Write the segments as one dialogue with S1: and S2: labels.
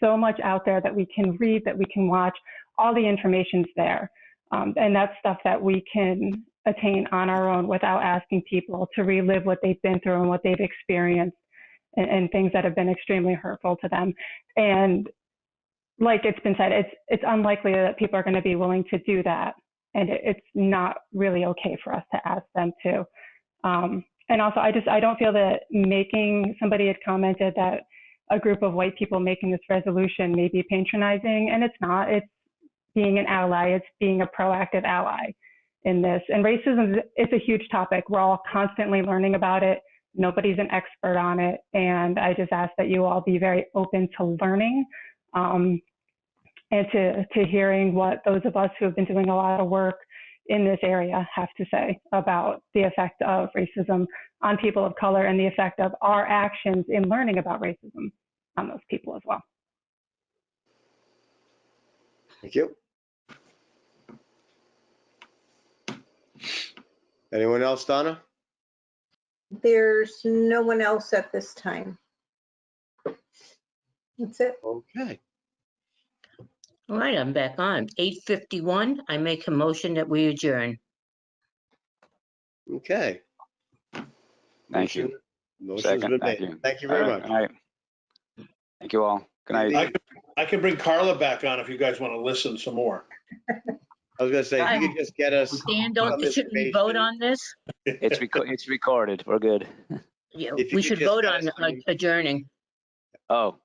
S1: so much out there that we can read, that we can watch. All the information's there. Um, and that's stuff that we can attain on our own without asking people to relive what they've been through and what they've experienced and, and things that have been extremely hurtful to them. And like it's been said, it's, it's unlikely that people are going to be willing to do that. And it, it's not really okay for us to ask them to. Um, and also, I just I don't feel that making somebody had commented that a group of white people making this resolution may be patronizing, and it's not. It's being an ally. It's being a proactive ally in this. And racism it's a huge topic. We're all constantly learning about it. Nobody's an expert on it, and I just ask that you all be very open to learning. Um, and to, to hearing what those of us who have been doing a lot of work in this area have to say about the effect of racism on people of color and the effect of our actions in learning about racism on those people as well.
S2: Thank you. Anyone else, Donna?
S3: There's no one else at this time. That's it.
S2: Okay.
S4: All right, I'm back on. Eight fifty-one, I make a motion that we adjourn.
S2: Okay.
S5: Thank you.
S2: Motion- Motion's
S5: Second,
S2: been
S5: thank
S2: made.
S5: you.
S2: Thank you very
S5: All right,
S2: much.
S5: All right. Thank you all. Good night.
S6: I could- I can bring Carla back on if you guys want to listen some more.
S2: I was gonna say, if you could just get us,
S4: Dan, don't,
S2: Some
S4: shouldn't we vote
S2: information.
S4: on this?
S5: It's reco- it's recorded. We're good.
S4: Yeah,
S2: If you
S4: we
S2: could
S4: should
S2: just
S4: vote
S2: let
S4: on
S2: us know.
S4: like, adjourning.
S5: Oh,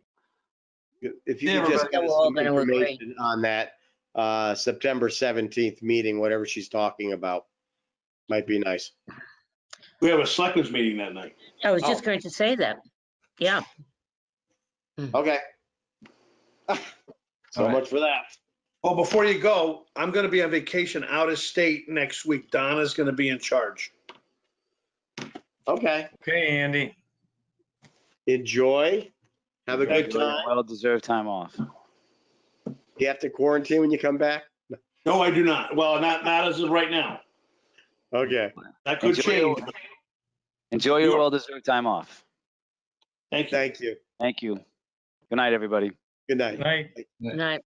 S2: if you
S6: Yeah,
S2: could just
S6: Rebecca,
S2: get us
S4: we're all
S2: some
S4: gonna agree.
S2: information on that, uh, September seventeenth meeting, whatever she's talking about, might be nice.
S6: We have a selectmen's meeting that night.
S4: I was just
S2: Oh.
S4: going to say that. Yeah,
S2: Okay. So
S5: All right.
S2: much for that.
S6: Oh, before you go, I'm going to be on vacation out of state next week. Donna's going to be in charge.
S2: Okay.
S7: Okay, Andy.
S2: Enjoy. Have a good
S6: Thank you.
S2: time.
S5: well deserved time off.
S2: You have to quarantine when you come back?
S6: No, I do not. Well, not, not as of right now.
S2: Okay.
S6: That could
S5: Enjoy your-
S6: change.
S5: Enjoy your
S6: You're-
S5: well deserved time off.
S6: Thank you.
S2: Thank you.
S5: Thank you. Good night, everybody.
S2: Good night.
S7: Night.
S4: and I-